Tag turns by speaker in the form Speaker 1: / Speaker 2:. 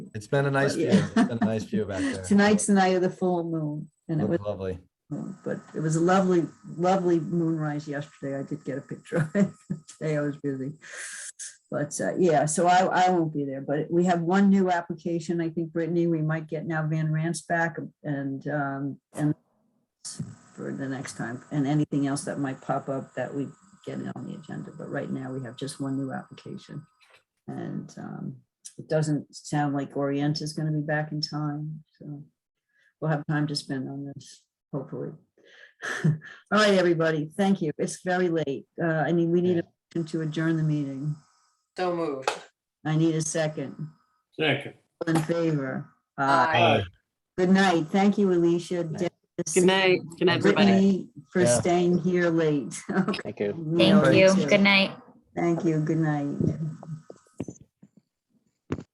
Speaker 1: It's been a nice view.
Speaker 2: yeah.
Speaker 1: It's been a nice view back there.
Speaker 2: Tonight's the night of the full moon, and it was,
Speaker 1: Looked lovely.
Speaker 2: but it was a lovely, lovely moonrise yesterday. I did get a picture of it. Today I was busy. But uh, yeah, so I, I won't be there, but we have one new application. I think Brittany, we might get now Van Rance back and, um, and for the next time, and anything else that might pop up that we get on the agenda. But right now, we have just one new application. And um, it doesn't sound like Orient is going to be back in time, so we'll have time to spend on this, hopefully. All right, everybody, thank you. It's very late. Uh, I mean, we need a motion to adjourn the meeting.
Speaker 3: So moved.
Speaker 2: I need a second.
Speaker 4: Second.
Speaker 2: All In favor. Aye.
Speaker 3: Aye.
Speaker 2: Good night. Thank you, Alicia. Dennis,
Speaker 5: Good night. Good night, everybody.
Speaker 2: Brittany, For
Speaker 1: Yeah.
Speaker 2: staying here late. Okay.
Speaker 6: Thank you.
Speaker 2: we
Speaker 7: Thank
Speaker 2: are
Speaker 1: Alright.
Speaker 7: you.
Speaker 2: too.
Speaker 7: Good night.
Speaker 2: Thank you. Good night.